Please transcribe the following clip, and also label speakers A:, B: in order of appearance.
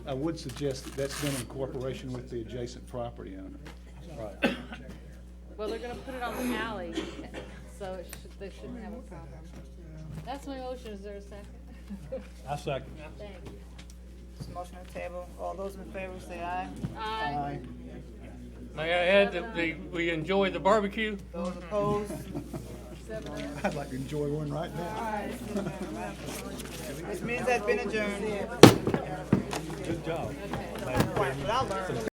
A: I would suggest that that's done in cooperation with the adjacent property owner.
B: Right.
C: Well, they're gonna put it on the alley, so it should, they shouldn't have a problem. That's my motion, is there a second?
B: I second.
C: Thank you.
D: It's a motion on the table. All those in favor say aye.
C: Aye.
E: May I add that the, we enjoy the barbecue?
D: Those opposed?
C: Seven.
A: I'd like to enjoy one right now.
D: This meeting has been adjourned.
B: Good job.
D: But I learned.